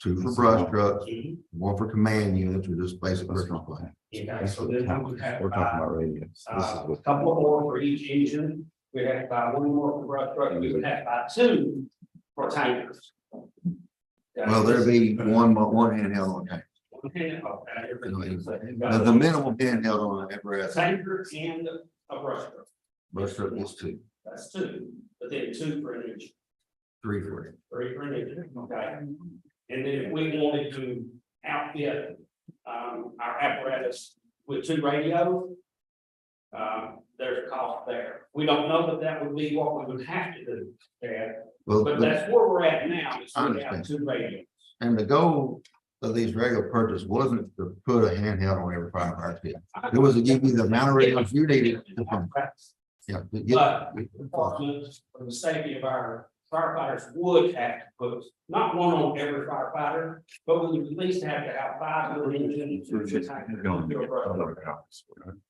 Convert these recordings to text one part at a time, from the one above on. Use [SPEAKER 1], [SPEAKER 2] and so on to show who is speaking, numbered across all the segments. [SPEAKER 1] two for brush trucks, one for command units, or just basic personal plan.
[SPEAKER 2] Yeah, so then we would have
[SPEAKER 3] We're talking
[SPEAKER 2] about
[SPEAKER 3] about radios. This is
[SPEAKER 2] uh, a
[SPEAKER 3] what-
[SPEAKER 2] couple more for each engine. We'd have about one more for brush truck, and we would have about two for tankers.
[SPEAKER 1] Well, there'd be one, one handheld on that.
[SPEAKER 2] Okay, okay, everything's-
[SPEAKER 1] The- The minimum handheld on every
[SPEAKER 2] A tanker and a brush truck,
[SPEAKER 1] brush truck is two,
[SPEAKER 2] that's two, but then two for an engine.
[SPEAKER 1] three for it.
[SPEAKER 2] Very primitive, okay? And then if we wanted to outfit um our apparatus with two radios. Uh, there's a cost there. We don't know that that would be what we would have to do, Chad,
[SPEAKER 1] Well,
[SPEAKER 2] but
[SPEAKER 1] the-
[SPEAKER 2] that's where we're at now, is
[SPEAKER 1] I
[SPEAKER 2] we have
[SPEAKER 1] understand.
[SPEAKER 2] two radios.
[SPEAKER 1] and the goal of these regular purchases wasn't to put a handheld on every five hours. It was to give you the amount of radios you needed. to
[SPEAKER 2] But
[SPEAKER 1] function. Yeah. to get-
[SPEAKER 2] the department, for the safety of our firefighters would have to put, not one on every firefighter, but we would at least have to have five little engines or two tankers. to a brush truck.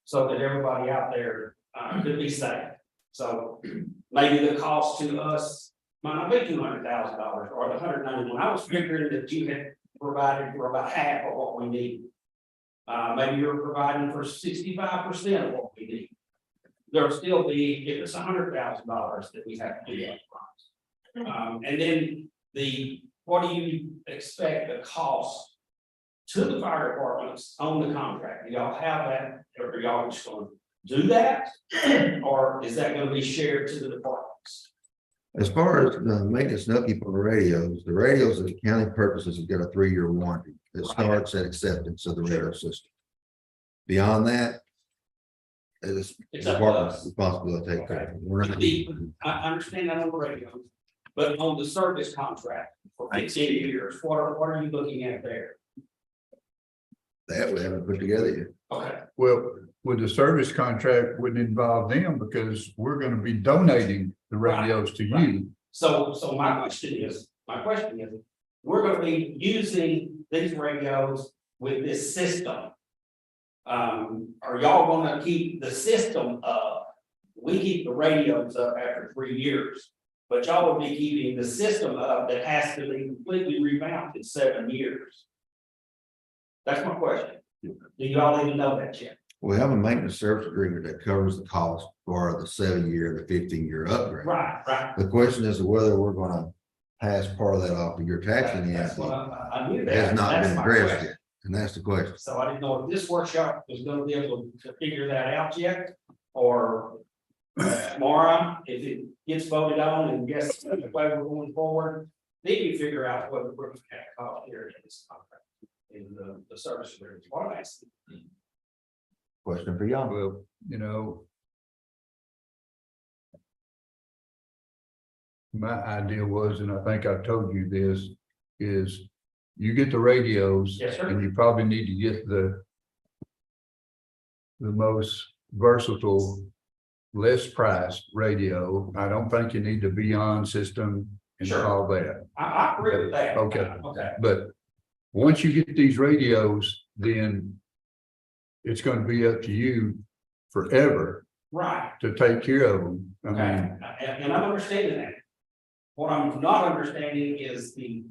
[SPEAKER 2] so that everybody out there uh could be safe. So maybe the cost to us might not be two hundred thousand dollars or the hundred ninety-one. I was figuring that you had provided for about half of what we need. Uh, maybe you're providing for sixty-five percent of what we need. There'll still be, if it's hundred thousand dollars that we have to do upfront. Um, and then the, what do you expect the cost to the fire departments on the contract, do y'all have that, or are y'all just gonna do that? Or is that gonna be shared to the departments?
[SPEAKER 1] As far as the maintenance and upkeep on the radios, the radios that county purposes have got a three-year warranty that starts at acceptance of the radio system. Beyond that. It's
[SPEAKER 2] It's up to
[SPEAKER 1] department's
[SPEAKER 2] us.
[SPEAKER 1] responsibility to take care of it. We're not-
[SPEAKER 2] The- I, I understand that on the radio, but on the service contract for fifteen years, what are, what are you looking at there?
[SPEAKER 1] That we haven't put together yet.
[SPEAKER 2] Okay,
[SPEAKER 4] Well, with the service contract, wouldn't involve them because we're gonna be donating the radios to you.
[SPEAKER 2] so, so my question is, my question is, we're gonna be using these radios with this system. Um, are y'all gonna keep the system up? We keep the radios up after three years. But y'all would be keeping the system up that has to be completely revamped in seven years. That's my question. Do y'all even know that yet?
[SPEAKER 1] We have a maintenance service agreement that covers the cost for the seven-year, the fifteen-year upgrade.
[SPEAKER 2] Right, right.
[SPEAKER 1] The question is whether we're gonna pass part of that off to your taxing
[SPEAKER 2] That's what
[SPEAKER 1] asset.
[SPEAKER 2] I, I knew that.
[SPEAKER 1] Has not
[SPEAKER 2] That's
[SPEAKER 1] been
[SPEAKER 2] my
[SPEAKER 1] addressed
[SPEAKER 2] question.
[SPEAKER 1] yet, and that's the question.
[SPEAKER 2] So I didn't know if this workshop was gonna be able to figure that out yet, or tomorrow, if it gets voted on and guess the way we're going forward, they can figure out what we're gonna call here in this contract, in the, the service agreement. What am I asking?
[SPEAKER 1] Question for y'all.
[SPEAKER 4] Well, you know. My idea was, and I think I told you this, is you get the radios
[SPEAKER 2] Yes, sir.
[SPEAKER 4] and you probably need to get the the most versatile, less priced radio. I don't think you need the Beyond system and
[SPEAKER 2] Sure.
[SPEAKER 4] all that,
[SPEAKER 2] I, I agree with that.
[SPEAKER 4] Okay.
[SPEAKER 2] Okay.
[SPEAKER 4] but once you get these radios, then it's gonna be up to you forever
[SPEAKER 2] Right.
[SPEAKER 4] to take care of them. I
[SPEAKER 2] Okay, Uh,
[SPEAKER 4] mean,
[SPEAKER 2] and, and I'm understanding that. What I'm not understanding is the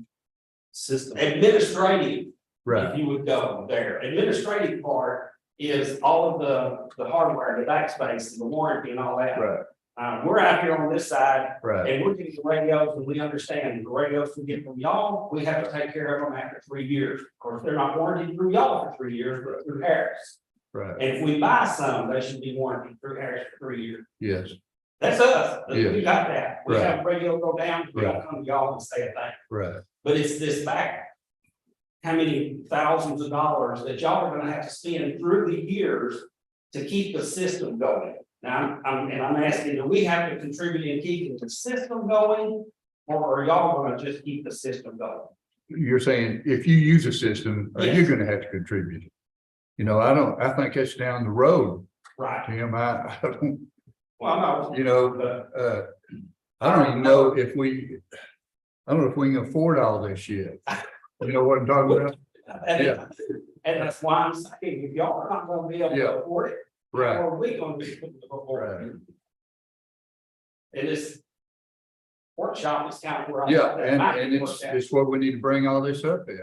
[SPEAKER 3] System.
[SPEAKER 2] administrative
[SPEAKER 4] right,
[SPEAKER 2] if you would go there. Administrative part is all of the, the hardware, the backspace, and the warranty and all that.
[SPEAKER 4] right,
[SPEAKER 2] Uh, we're out here on this side
[SPEAKER 4] right.
[SPEAKER 2] and we're getting the radios and we understand the radios we get from y'all, we have to take care of them after three years. Of course, they're not warranted through y'all for three years, but through Harris.
[SPEAKER 4] Right,
[SPEAKER 2] And if we buy some, they should be warranted through Harris for three years.
[SPEAKER 4] yes,
[SPEAKER 2] That's us. We
[SPEAKER 4] Yeah.
[SPEAKER 2] got that. We
[SPEAKER 4] Right.
[SPEAKER 2] have radio go down, we don't come to y'all and say a thing.
[SPEAKER 4] right,
[SPEAKER 2] But it's this back. How many thousands of dollars that y'all are gonna have to spend through the years to keep the system going? Now, I'm- I'm, and I'm asking, do we have to contribute in keeping the system going? Or are y'all gonna just keep the system going?
[SPEAKER 4] you're saying if you use a system, uh, you're gonna have to contribute. You know, I don't, I think that's down the road,
[SPEAKER 2] Right,
[SPEAKER 4] Tim, I, I don't,
[SPEAKER 2] well, no,
[SPEAKER 4] you know,
[SPEAKER 2] but
[SPEAKER 4] uh, I don't even know if we, I don't know if we can afford all this yet. You know what I'm talking about?
[SPEAKER 2] and, and that's why I'm saying, if y'all are not gonna be able
[SPEAKER 4] Yeah.
[SPEAKER 2] to afford it,
[SPEAKER 4] Right,
[SPEAKER 2] Or we gonna be. able to afford it?
[SPEAKER 4] Right.
[SPEAKER 2] And it's. workshop is kind of where I.
[SPEAKER 4] Yeah,
[SPEAKER 2] that
[SPEAKER 4] and,
[SPEAKER 2] might be
[SPEAKER 4] and it's,
[SPEAKER 2] worked out.
[SPEAKER 4] it's what we need to bring all this up in.